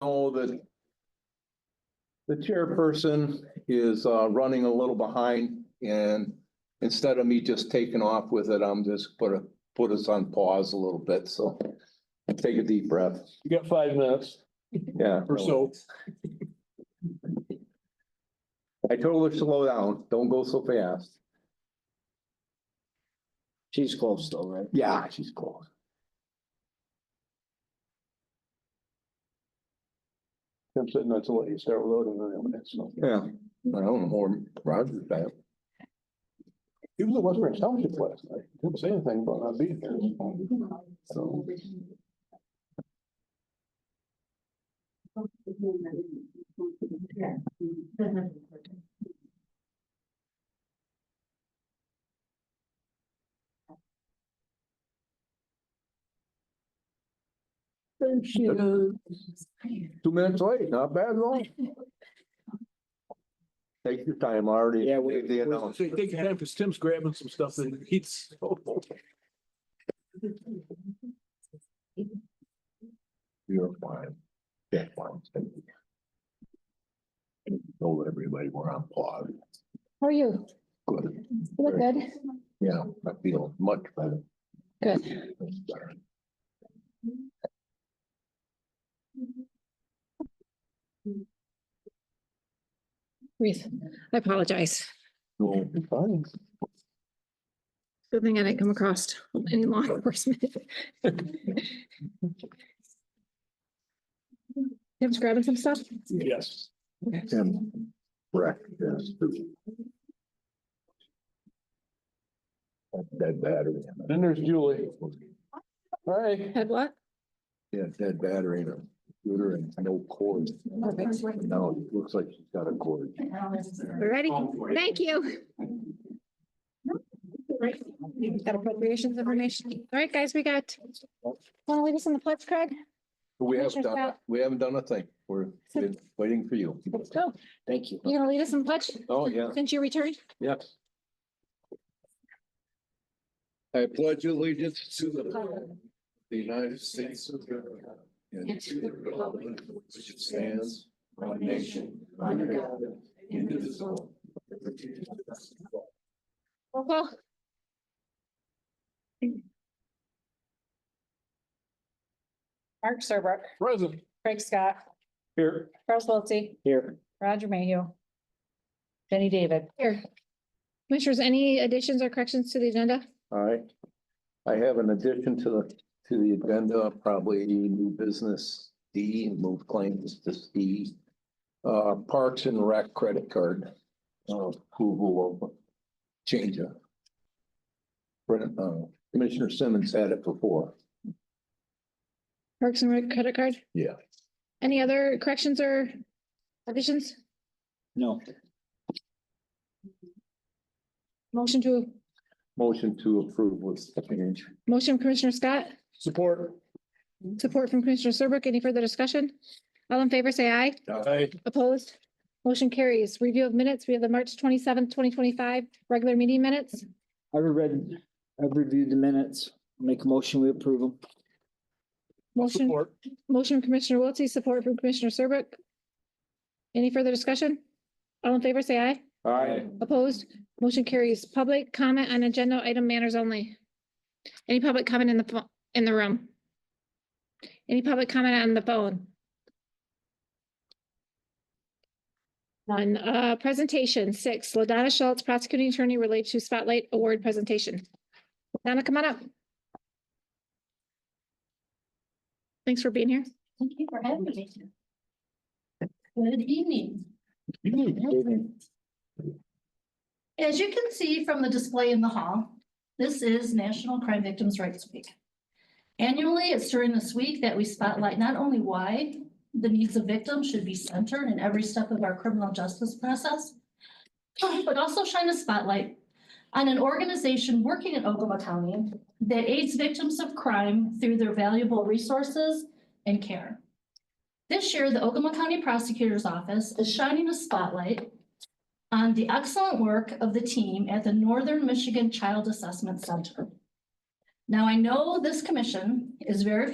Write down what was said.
know that the chairperson is uh, running a little behind and instead of me just taking off with it, I'm just put a, put us on pause a little bit, so take a deep breath, You got five minutes yeah. or so. I told her slow down, don't go so fast. She's close though, right? Yeah, she's close. I'm sitting, that's what you start loading on it. so. Yeah, I don't know, or Roger's back. He was at West Branch Township last night. Didn't say anything about not being there. So, Two minutes late, not bad at all. Take your time, I already. Yeah, we- made the announcement. so you take your time because Tim's grabbing some stuff and he's. You're fine. That's fine. Told everybody we're on pause. How are you? Good. You look good. Yeah, I feel much better. Good. Reese, I apologize. Well, fine. Good thing I didn't come across any law enforcement. Tim's grabbing some stuff? Yes. And breakfast. Dead battery. in it. Then there's Julie. Hi. Had what? Yeah, dead battery in a computer and no cord. Perfect. Now it looks like she's got a cord. Ready? Thank you. Got appropriations information. All right, guys, we got. Want to leave us in the pledge, Craig? We have Commissioner's done, got- we haven't done a thing. We're we're waiting for you. Let's go. Thank you. You gonna lead us in pledge? Oh, yeah. Since you returned? Yep. I pledge allegiance to the the United States of America and to the republic which stands one nation under God, indivisible. with liberty and justice for all. Roll Uh-huh. call. Mark Serbrook, Present. Craig Scott, Here. Charles Wiltie, Here, Roger Mayhew, Jenny David. Here. Commissioners, any additions or corrections to the agenda? All right. I have an addition to the, to the agenda, probably new business D, move claims to C. Uh, Parks and Rec credit card, uh, approval of change of. Brennan, uh, Commissioner Simmons had it before. Parks and Rec credit card? Yeah. Any other corrections or additions? no, Motion to, Motion to approve was change. motion Commissioner Scott, Support. support from Commissioner Serbrook. Any further discussion? All in favor, say aye. Hi. Opposed? Motion carries. Review of minutes. We have the March twenty-seventh, twenty twenty-five regular meeting minutes. I've read, I've reviewed the minutes, make a motion, we approve them. Motion, motion from Commissioner Wiltie, support from Commissioner Serbrook. Any further discussion? All in favor, say aye. All right, Opposed? Motion carries. Public comment on agenda item manners only. Any public comment in the, pho- in the room? Any public comment on the phone? None. Uh, presentation six, Ladonna Schultz, prosecuting attorney related to spotlight award presentation. Donna, come on up. Thanks for being here. Thank you for having me. Good evening. As you can see from the display in the hall, this is National Crime Victims' Rights Week. Annually, it's during this week that we spotlight not only why the needs of victims should be centered in every step of our criminal justice process, but also shine a spotlight on an organization working in Ogama County that aids victims of crime through their valuable resources and care. This year, the Ogama County Prosecutor's Office is shining a spotlight on the excellent work of the team at the Northern Michigan Child Assessment Center. Now, I know this commission is very